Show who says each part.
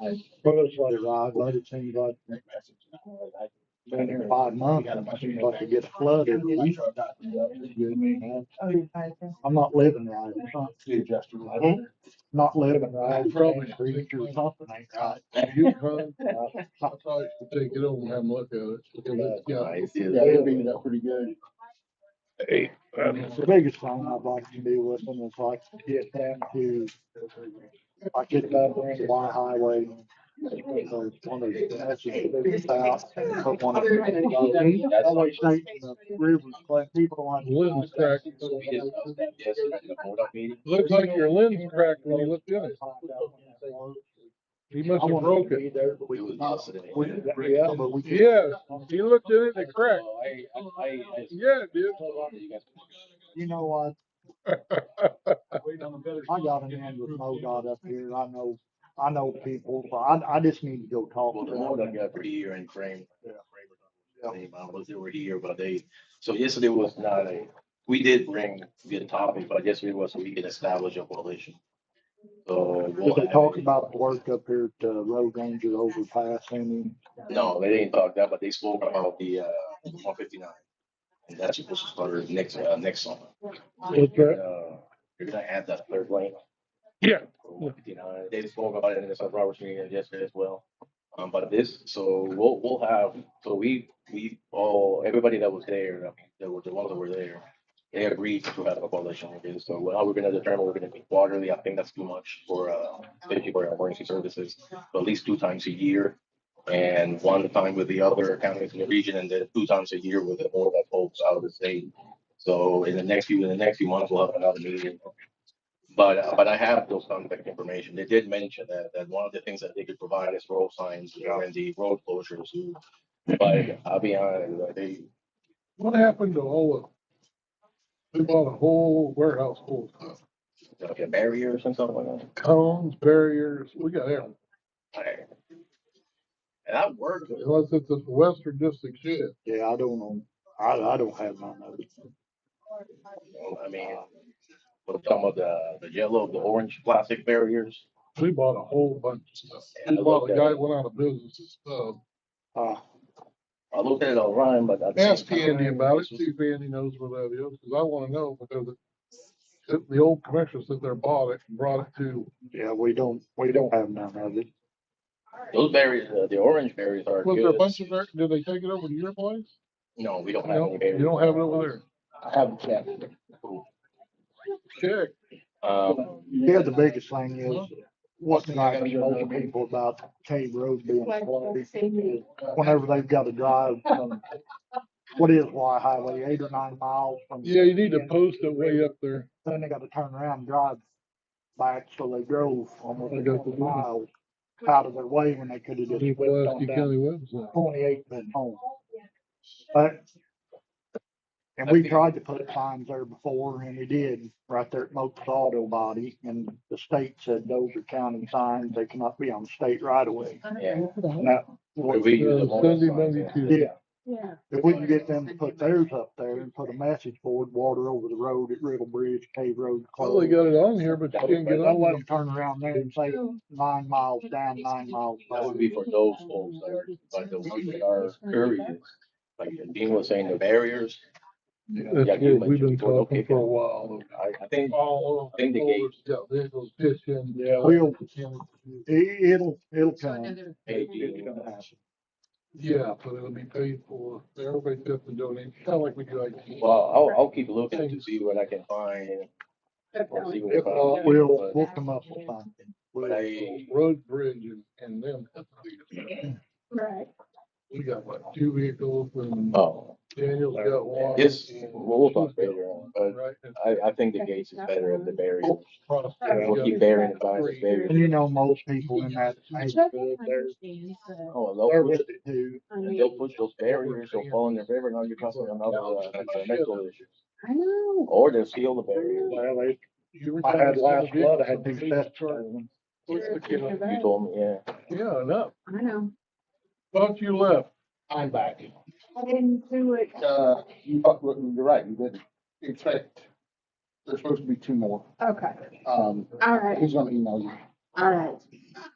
Speaker 1: I photos what it arrived, let it seem like in five months, it seems like it gets flooded. I'm not living right. It's not- Hmm? Not living right.
Speaker 2: I'm probably-
Speaker 1: Street or something ain't right.
Speaker 2: You try, I'll try to take it over and have a look at it. Yeah,
Speaker 1: they
Speaker 2: beat it up pretty good.
Speaker 1: The biggest thing I'd like to do with them is like get them to, like get that on the Y highway. or One of the patches that they put out, and put one of the- That way state and the rivers, like people don't.
Speaker 2: Lynn's
Speaker 1: have to-
Speaker 2: cracked. Looks like your lens cracked when you looked in it. He must
Speaker 1: I
Speaker 2: have
Speaker 1: wanted
Speaker 2: broke
Speaker 1: to be
Speaker 2: it.
Speaker 1: there, but we could not. We, yeah, but we. could-
Speaker 2: Yes, he looked in it and it cracked. Yeah, it did.
Speaker 1: You know what? I got an end with MoDOT up here. I know, I know people, so I, I just need to go talk
Speaker 3: Well,
Speaker 1: to
Speaker 3: the one I
Speaker 1: them.
Speaker 3: got for here in frame. Name, I was over here, but they, so yesterday was not a, we did bring the topic, but yesterday was we can establish a coalition. So. we'll
Speaker 1: Did they
Speaker 3: have
Speaker 1: talk
Speaker 3: a-
Speaker 1: about the work up here at uh, Road Ranger overpass and
Speaker 3: No, they didn't talk that, but they spoke about the uh one fifty nine. And that's supposed to start next uh next summer.
Speaker 2: Okay.
Speaker 3: Uh, You're gonna add that third Oh, lane.
Speaker 2: Yeah.
Speaker 3: One fifty nine. They spoke about it in the South Roberts meeting yesterday as well. Um, but this, so we'll we'll have, so we we all, everybody that was there, I mean, there were the ones that were there. They agreed to have a coalition with this. So how we're gonna determine, we're gonna be quarterly. I think that's too much for uh especially for our emergency services at least two times a year. And one time with the other counties in the region and then two times a year with the more that folks out of the state. So in the next few, in the next few months, we'll have another meeting. But, uh, but I have those contact information. They did mention that, that one of the things that they could provide is road signs and the road closures. But I'll be honest, like, they,
Speaker 2: What happened to all of? them? They bought a whole warehouse full of stuff.
Speaker 3: like a barrier or something like that.
Speaker 2: cones, barriers, we got everything.
Speaker 3: Like, And I worked with,
Speaker 2: Unless it's a western district shit.
Speaker 1: Yeah, I don't know. I, I don't have none of it.
Speaker 3: I mean, with some of the, the yellow, the orange plastic barriers.
Speaker 2: We bought a whole bunch of stuff.
Speaker 3: And
Speaker 2: We
Speaker 3: I
Speaker 2: bought
Speaker 3: looked
Speaker 2: a
Speaker 3: at
Speaker 2: guy
Speaker 3: it.
Speaker 2: that went out of business and stuff.
Speaker 1: Uh,
Speaker 3: I looked at it online, but. I-
Speaker 2: Ask Andy about it, see if Andy knows where that is, because I wanna know, because the, the old commissioner sitting there bought it, and brought it to,
Speaker 1: yeah, we don't, we don't have none of it.
Speaker 3: Those berries, uh, the orange berries are
Speaker 2: was there a
Speaker 3: good.
Speaker 2: bunch of, there- did they take it over to your place?
Speaker 3: No, we don't have
Speaker 2: No,
Speaker 3: any berries.
Speaker 2: you don't have it over
Speaker 3: I have checked.
Speaker 2: there. Check,
Speaker 3: Um,
Speaker 1: Yeah, the biggest thing is what's not to most people about Cave Road being flooded. Whenever they've got to drive from, what is Y Highway, eight or nine miles from.
Speaker 2: yeah, you need to post it way up there,
Speaker 1: Then they gotta turn around and drive back, so they drove almost
Speaker 2: I
Speaker 1: a
Speaker 2: got the
Speaker 1: couple
Speaker 2: one.
Speaker 1: miles out of their way when they could have
Speaker 2: on the
Speaker 1: just whipped on
Speaker 2: Pulaski
Speaker 1: down
Speaker 2: County website.
Speaker 1: twenty-eight
Speaker 3: Mm.
Speaker 1: and home. But, and we tried to put signs there before, and we did, right there at Moke's Auto Body, and the state said those are county signs, they cannot be on state right away.
Speaker 3: yeah.
Speaker 1: Well,
Speaker 3: We use them all the
Speaker 2: Sunday,
Speaker 3: time,
Speaker 2: Monday,
Speaker 3: yeah.
Speaker 2: Tuesday,
Speaker 1: Yeah, if we can get them to put theirs up there and put a message board, water over the road at Riddle Bridge, Cave Road.
Speaker 2: well, they
Speaker 1: closed.
Speaker 2: got it on here, but you can't get
Speaker 1: Don't let
Speaker 2: on.
Speaker 1: them turn around there and say
Speaker 4: Oh,
Speaker 1: nine miles down, nine miles
Speaker 3: That
Speaker 1: back.
Speaker 3: would be for those folks that are, like the ones that are curious. Like Dean was saying, the barriers,
Speaker 2: it.
Speaker 3: Yeah,
Speaker 2: That's
Speaker 3: you
Speaker 2: good, we've been
Speaker 3: mentioned before,
Speaker 2: talking
Speaker 3: okay.
Speaker 2: for a while.
Speaker 3: I, I think,
Speaker 2: All
Speaker 3: I think the gate-
Speaker 2: Yeah, there's those pitching.
Speaker 1: Yeah. We'll, it, it'll, it'll
Speaker 3: uh,
Speaker 1: come.
Speaker 3: maybe,
Speaker 1: It's gonna happen.
Speaker 2: Yeah, but it'll be paid for, everybody's got to donate, kind of like we do IT.
Speaker 3: well, I'll, I'll keep looking to see what I can find. or see what I
Speaker 1: If
Speaker 3: find.
Speaker 1: not, we'll,
Speaker 3: But-
Speaker 1: we'll come up with something.
Speaker 3: But I,
Speaker 2: Road bridge and, and them.
Speaker 4: Right.
Speaker 2: We got what, two vehicles and
Speaker 3: oh,
Speaker 2: Daniel's got one.
Speaker 3: yes, we'll we'll talk later on, but
Speaker 2: Right. and
Speaker 3: I, I think the gates is better than the barriers.
Speaker 2: Prospect
Speaker 3: And we'll
Speaker 2: got
Speaker 3: keep bearing in mind the barriers.
Speaker 1: And you know, most people in that neighborhood, they're
Speaker 3: uh, Oh,
Speaker 1: they're
Speaker 3: and they'll push,
Speaker 1: with it too.
Speaker 3: and they'll push those barriers, they'll fall in the river, now you're causing another uh, environmental issue.
Speaker 4: I know.
Speaker 3: Or they'll seal the barriers.
Speaker 1: Well, they-
Speaker 2: you were
Speaker 1: I had
Speaker 2: talking
Speaker 1: last
Speaker 2: about
Speaker 1: flood, I had two
Speaker 2: vehicles.
Speaker 1: sets.
Speaker 2: What's the kid-
Speaker 3: You told me, yeah.
Speaker 2: Yeah, enough,
Speaker 4: I know.
Speaker 2: thought you left.
Speaker 5: I'm back.
Speaker 4: I didn't do it.
Speaker 5: Uh, you, thought- you're right, you didn't expect, there's supposed to be two more.
Speaker 4: Okay.
Speaker 5: Um,
Speaker 4: All right.
Speaker 5: he's gonna email you.
Speaker 4: All right.